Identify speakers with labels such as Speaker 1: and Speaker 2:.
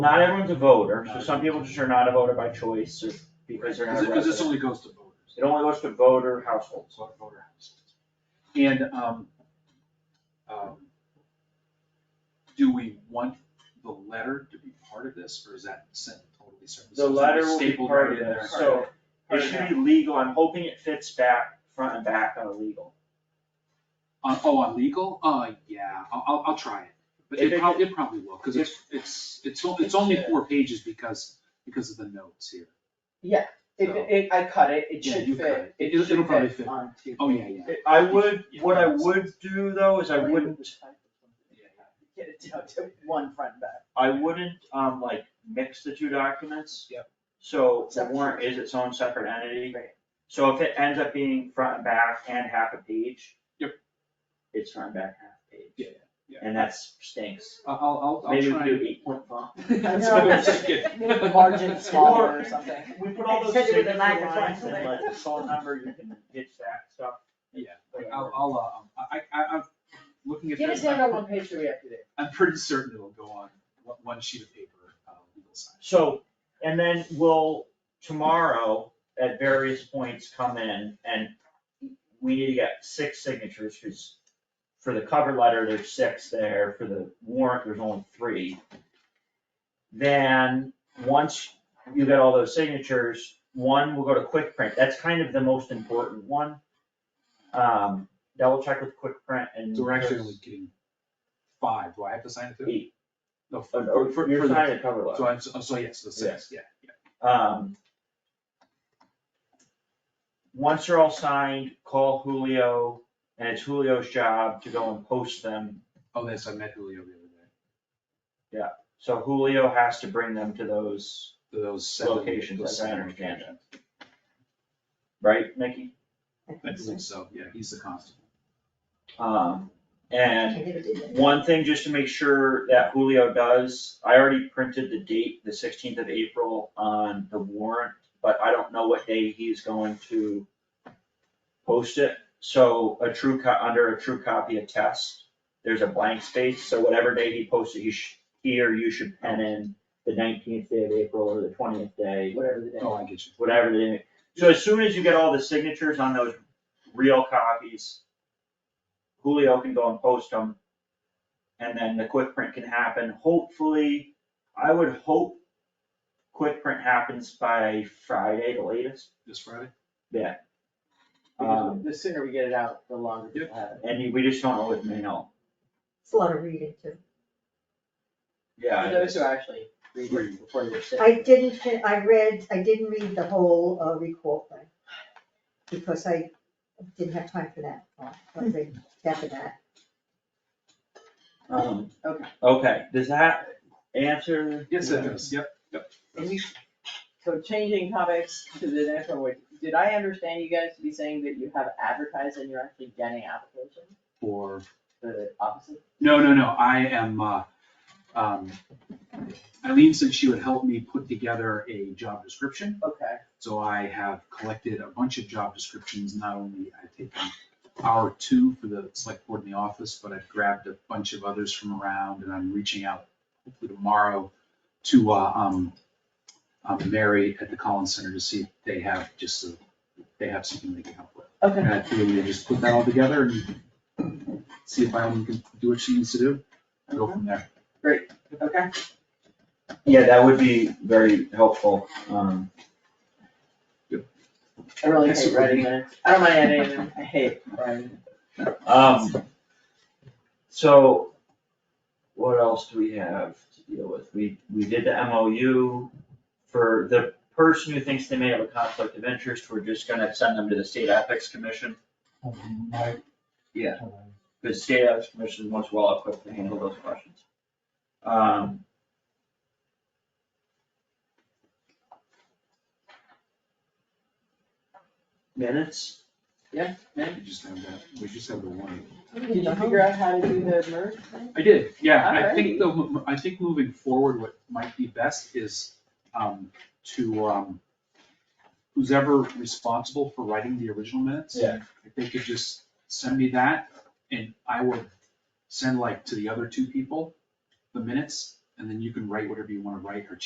Speaker 1: not everyone's a voter, so some people just are not a voter by choice or because they're not
Speaker 2: Because because this
Speaker 1: residents.
Speaker 2: only goes to voters,
Speaker 1: It only goes to voter households.
Speaker 2: so voter houses. And, um, um, do we want the letter to be part of this, or is that sent totally separate?
Speaker 1: The letter will be
Speaker 2: Stapled
Speaker 1: part
Speaker 2: right
Speaker 1: of
Speaker 2: in there.
Speaker 1: this, so it should be legal. I'm hoping it fits back, front and back on legal.
Speaker 2: On, oh, on legal, uh, yeah, I'll, I'll, I'll try it, but
Speaker 1: If
Speaker 2: it
Speaker 1: it-
Speaker 2: prob, it probably will, cause it's, it's, it's, o- it's only
Speaker 3: Yeah.
Speaker 2: four pages because, because of the notes here.
Speaker 3: Yeah, it,
Speaker 2: So-
Speaker 3: it, I cut it, it
Speaker 2: Yeah,
Speaker 3: should
Speaker 2: you cut
Speaker 3: fit.
Speaker 2: it. It- it'll
Speaker 3: should
Speaker 2: probably fit.
Speaker 3: on two
Speaker 2: Oh, yeah,
Speaker 3: pages.
Speaker 2: yeah.
Speaker 1: I would, what I would do though is I wouldn't,
Speaker 3: Get it down to one front and back.
Speaker 1: I wouldn't, um, like mix the two documents.
Speaker 3: Yep.
Speaker 1: So the warrant is its own separate entity.
Speaker 3: Right.
Speaker 1: So if it ends up being front and back and half a page.
Speaker 2: Yep.
Speaker 1: It's front and back, half page.
Speaker 2: Yeah, yeah.
Speaker 1: And that's stinks.
Speaker 2: I'll, I'll, I'll
Speaker 1: Maybe we
Speaker 2: try.
Speaker 1: could do eight point font.
Speaker 2: That's what I was thinking.
Speaker 3: Maybe the margin smaller or something.
Speaker 1: We put all those
Speaker 3: Hit it with
Speaker 1: signature
Speaker 3: a microphone.
Speaker 1: lines and like the phone number, you can ditch that stuff.
Speaker 2: Yeah, I'll, I'll, uh, I, I, I'm looking at
Speaker 3: Get it
Speaker 2: this,
Speaker 3: down to
Speaker 2: I'm,
Speaker 3: one page to be up to date.
Speaker 2: I'm pretty certain it'll go on one, one sheet of paper, uh, legal size.
Speaker 1: So, and then we'll, tomorrow, at various points, come in and we need to get six signatures, cause for the cover letter, there's six there, for the warrant, there's only three. Then, once you get all those signatures, one will go to quick print, that's kind of the most important one. Um, double check with quick print and.
Speaker 2: So we're actually only getting five, do I have to sign it too?
Speaker 1: Eight.
Speaker 2: No, for,
Speaker 1: Oh,
Speaker 2: for,
Speaker 1: You're
Speaker 2: for the-
Speaker 1: signing the cover letter.
Speaker 2: So I'm, oh, so so yes, the six, yeah, yeah.
Speaker 1: Um. Once they're all signed, call Julio, and it's Julio's job to go and post them.
Speaker 2: Oh, that's, I met Julio the other day,
Speaker 1: So Julio has to bring them to those,
Speaker 2: those seven.
Speaker 1: Locations,
Speaker 2: those
Speaker 1: as I
Speaker 2: seven
Speaker 1: understand
Speaker 2: locations.
Speaker 1: right, Nikki?
Speaker 2: I believe so, yeah, he's the constable.
Speaker 1: Um, and
Speaker 3: Can you give it to me?
Speaker 1: one thing just to make sure that Julio does, I already printed the date, the sixteenth of April on the warrant, but I don't know what day he's going to post it. So a true co- under a true copy of test, there's a blank space, so whatever day he posts it, he sh he or you should pen in the nineteenth day of April or the twentieth day,
Speaker 3: Whatever the day.
Speaker 2: Oh, I get you.
Speaker 1: whatever the, so as soon as you get all the signatures on those real copies, Julio can go and post them, and then the quick print can happen, hopefully, I would hope quick print happens by Friday, the latest.
Speaker 2: This Friday?
Speaker 1: Um,
Speaker 3: The sooner we get it out, the longer
Speaker 2: Yep.
Speaker 3: people have it.
Speaker 1: and we just don't know with mail.
Speaker 4: It's a lot of reading too.
Speaker 1: Yeah.
Speaker 3: For
Speaker 1: I
Speaker 3: those
Speaker 1: guess.
Speaker 3: who actually read it before you're sick.
Speaker 4: I didn't, fin- I read, I didn't read the whole uh, recall thing, because I didn't have time for that, uh, I read half of that.
Speaker 1: Um,
Speaker 3: Okay.
Speaker 1: okay, does that answer?
Speaker 2: Yes, it is, yep.
Speaker 3: And you- So changing topics to the next one, which, did I understand you guys to be saying that you have advertised and you're actually getting applications
Speaker 2: For
Speaker 3: for the opposite?
Speaker 2: No, no, no, I am, uh, um, Eileen said she would help me put together a job description.
Speaker 3: Okay,
Speaker 2: So I have collected a bunch of job descriptions, not only I've taken our two for the select board in the office, but I've grabbed a bunch of others from around and I'm reaching out hopefully tomorrow to, uh, um, um, Mary at the Collins Center to see if they have just, a- if they have something they can help with.
Speaker 3: okay.
Speaker 2: And I feel we just put that all together and see if Eileen can do what she needs to do, and go from there.
Speaker 3: Okay,
Speaker 1: Yeah, that would be very helpful, um.
Speaker 3: I really
Speaker 2: Yes,
Speaker 3: hate
Speaker 2: it would
Speaker 3: writing
Speaker 2: be.
Speaker 3: minutes. I don't mind editing them. I hate writing.
Speaker 1: Um, so what else do we have to deal with? We, we did the MOU for the person who thinks they may have a conflict of interest, we're just gonna send them to the state ethics commission. Yeah, the state ethics commission is much well equipped to handle those questions. Um. Minutes?
Speaker 2: We just have that, we just have the one.
Speaker 3: Did you figure out how to do the merge thing?
Speaker 2: I did, yeah, I think the, I think moving forward, what might be best is, um, to, um, who's ever responsible for writing the original minutes.
Speaker 1: Yeah.
Speaker 2: If they could just send me that, and I would send like to the other two people, the minutes, and and then you can write whatever you wanna write or